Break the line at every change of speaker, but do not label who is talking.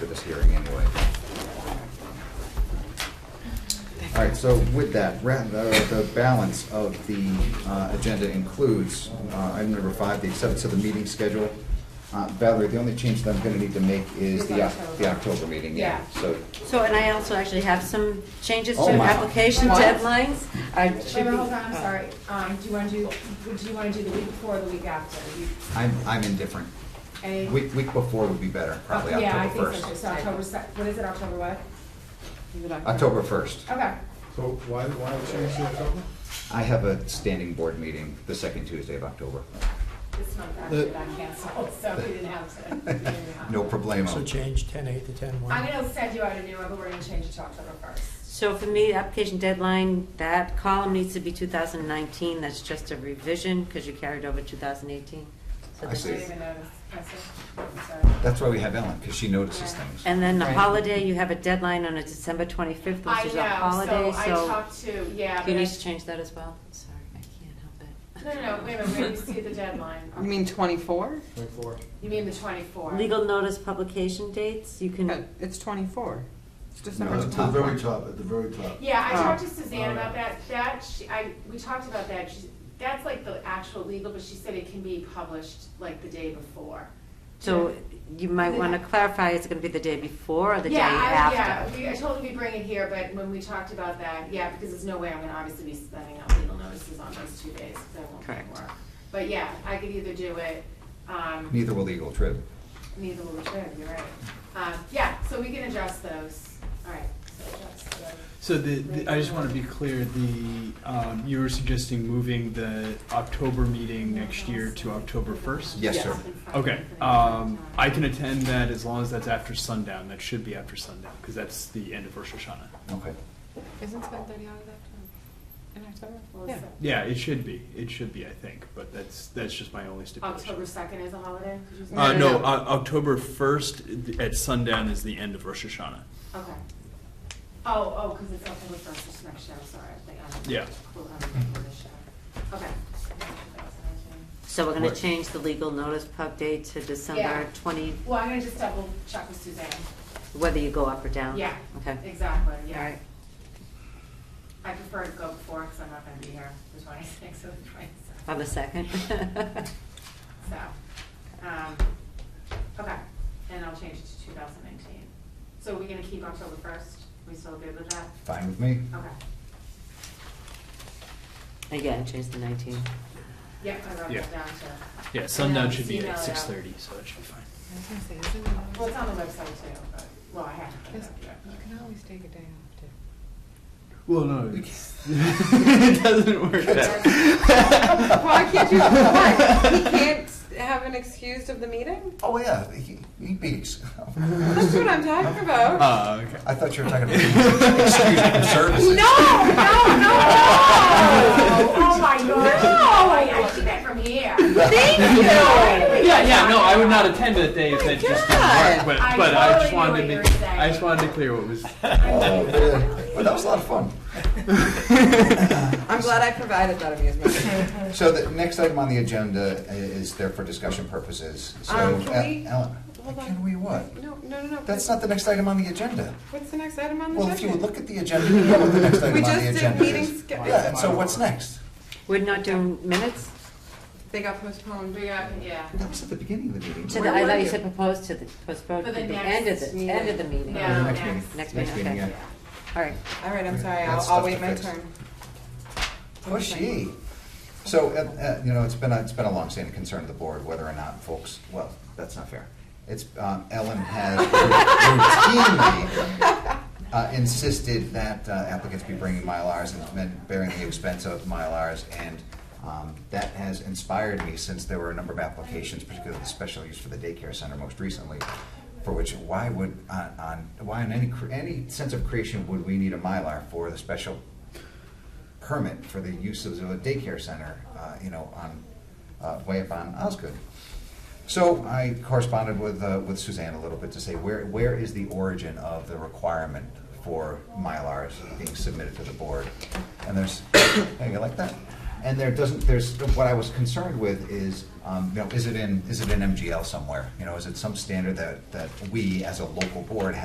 All right, so with that, ra- uh, the balance of the uh, agenda includes uh, item number five, the acceptance of the meeting schedule. Uh, Valerie, the only change that I'm going to need to make is the Oc- the October meeting, yeah. So
So, and I also actually have some changes to
Oh, my.
application
What?
deadlines. I
Wait,
should
wait,
be- uh,
hold on, I'm sorry. Um, do you want to do, would you want to do the week before or the week after? You-
I'm I'm indifferent.
any-
Week week before would be better, probably
Oh, Yeah, I
October
think so, too.
1st.
so October, se- what is it, October what?
October 1st.
Okay,
So why, why change to October?
I have a standing board meeting the second Tuesday of October.
this month actually got canceled, so we didn't have to. we didn't have to.
No problemo.
So change ten eight to ten
I'm
one.
gonna send you out a new one, but we're gonna change it to October first.
So for me, application deadline, that column needs to be 2019, that's just a revision because you carried over 2018. So
I
this
see.
didn't
is-
even notice, I see. Sorry.
That's why we have Ellen, because she notices things.
And then the
Right.
holiday, you have a deadline on a December 25th,
I
which is a holiday,
know, so I
so
talked to, yeah,
you
but
need
I-
to change that as well. Sorry, I can't help it.
no, no, no, wait a minute, wait, you see the deadline.
You mean twenty-four?
Twenty-four.
You mean the twenty-four?
Legal notice publication dates, you
Uh,
can,
It's twenty-four. It's
No,
December
at the very
24.
top, at the very top.
Yeah, I
Oh.
talked to Suzanne
Oh,
about
yeah.
that, that, she, I, we talked about that, she, that's like the actual legal, but she said it can be published like the day before.
so you might want to clarify, is it going to be the day before or the day
Yeah, I-
after?
Yeah, we, I told her we bring it here, but when we talked about that, yeah, because there's no way I'm gonna obviously be sending out legal notices on those two days, because I won't be at
Correct.
work. But yeah, I could either do it, um,
Neither will legal trip.
neither will return, you're right. Um, yeah, so we can adjust those, all right, so adjust those.
So the, the- I just want to be clear, the, um, you were suggesting moving the October meeting next year to October 1st?
Yes, sir.
Okay, um, I can attend that as long as that's after sundown, that should be after sundown, because that's the end of Rosh Hashanah.
Okay.
Isn't seven thirty hours after, in October?
Well,
Yeah.
so-
Yeah, it should be, it should be, I think, but that's, that's just my only
October
stipulation.
second is a holiday? Did you say?
Uh,
No, no,
no,
no.
O- October 1st at sundown is the end of Rosh Hashanah.
Okay. Oh, oh, because it's October first, it's next year, I'm sorry, I think I'm.
Yeah.
Cool, I'm thinking of this year. Okay.
So we're going
Right.
to change the legal notice pub date to December
Yeah.
20,
Well, I'm gonna just double check with Suzanne.
whether you go up or down?
Yeah,
Okay.
exactly,
All
yeah.
right.
I prefer to go before, because I'm not gonna be here the twenty-sixth or the
On
twenty-seventh,
the second?
so. um, Okay, and I'll change it to two thousand nineteen. So we're gonna keep October first? We still good with that?
Fine with me.
Okay.
Again, change the 19.
Yep, I wrote
Yeah.
that down too.
Yeah, sundown should be
Email it
at
out.
6:30, so that should be fine.
I was gonna say, isn't it
Well,
always-
it's on the website too, but, well, I have to.
Yes, You can always take a day off too.
Well, no, it doesn't work that.
Why can't you, why? He can't have an excuse of the meeting?
Oh, yeah, he he beats.
That's what I'm talking about.
Uh, okay.
I thought you were talking about excuse me, services.
No, no, no, no!
Oh my god, no, I, I see that from here.
Thank you!
Yeah, yeah, no, I would not attend that day if that just didn't work, but,
I
but I just
totally
wanted
knew
to,
what you were
I just
saying.
wanted to clear what was.
Oh, really? Well, that was a lot of fun.
I'm glad I provided that amusement.
So the next item on the agenda i- is there for discussion purposes. So,
Um, can
El-
we-
Ellen,
hold on.
can we what?
No, no, no, no.
That's not the next item on the agenda.
What's the next item on the
Well,
agenda?
if you would look at the agenda, you know what the next item
We
on
just
the
did
agenda
meeting
is.
sch-
Yeah, and so what's next?
We're not doing minutes?
They got postponed.
We got, yeah.
That was at the beginning of the
To
meeting.
the, I
were
thought you
you?
said proposed to the, postponed
For
to
the
the end of
next
the,
meeting.
end of the meeting.
Yeah.
All
next
next.
meeting.
Next meeting, okay.
yeah.
right.
All right, I'm sorry. I'll,
That's
I'll
stuff
wait
to
my
fix.
turn.
Pushy. So, uh, uh, you know, it's been, a- it's been a longstanding concern of the board whether or not folks, well, that's not fair. It's, um, Ellen has routinely uh, insisted that uh, applicants be bringing Mylars and men bearing the expense of Mylars. And um, that has inspired me since there were a number of applications, particularly the special use for the daycare center most recently, for which why would, on, on- why in any, cre- any sense of creation would we need a Mylar for the special permit for the use of a daycare center, uh, you know, on, uh, way up on Osgood. So I corresponded with, uh, with Suzanne a little bit to say, where, where is the origin of the requirement for Mylars being submitted to the board? And there's, hey, you like that? And there doesn't, there's, what I was concerned with is, um, you know, is it in, is it in MGL somewhere? You know, is it some standard that, that we as a local board